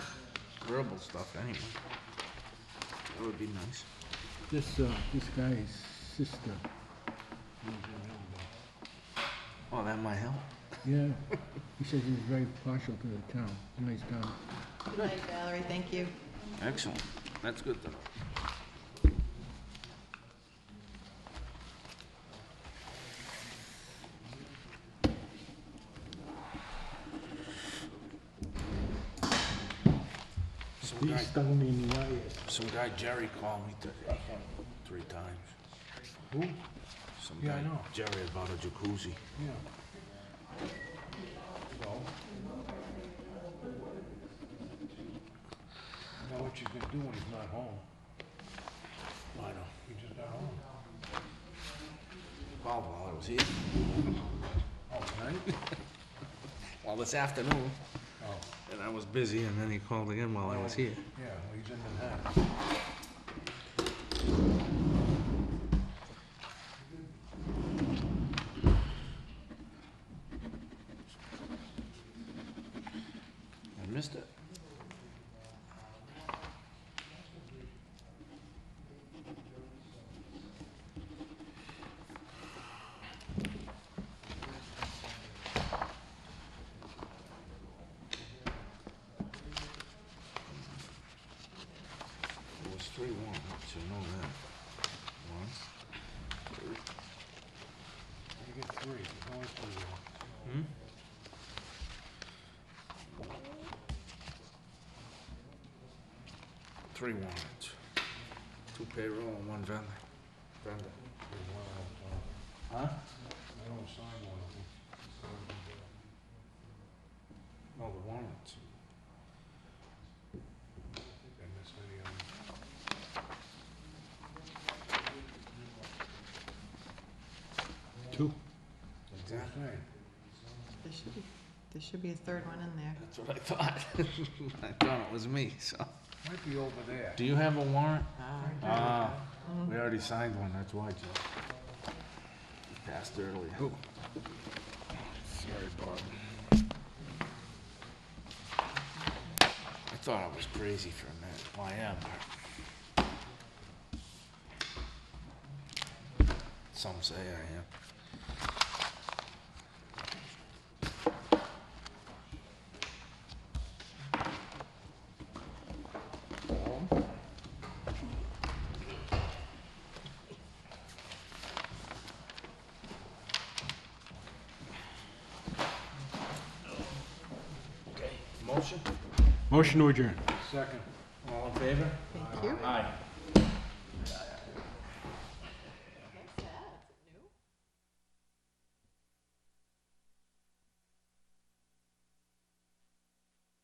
verbal stuff anyway. That would be nice. This, uh, this guy's sister, Oh, that might help. yeah, he says he was very partial to the town, nice town. Good night, Valerie, thank you. Excellent. That's good though. Some guy, down in the wires. some guy Jerry called me today, three times. Who? Some Yeah, I guy know. Jerry about a jacuzzi. Yeah. Now what you can do when he's not home, I know. he's just not home. Called while I was here. Oh, tonight? Well, this afternoon, Oh, and I was busy, and then he called again while I was here. yeah, well, he's in Manhattan. I missed it. It was three one, so you know that. One, You get three, there's always three. there. hmm? Three warrants, two payroll and one vendor. Vendor. There's one on the top. Huh? I don't sign one of them. No, the warrants. I think I missed any of them. Two. That's what I'm saying. There should be, there should be a third one in there. That's what I thought. I thought it was me, so. Might be over there. Do you have a warrant? Ah, Ah, we already signed one, that's why, Jeff. You Passed earlier. Sorry, Bob. I thought I was crazy for a minute. Well, I am. but- Some say I am. Motion? Motion to adjourn. Second. All in favor? Thank you. Aye.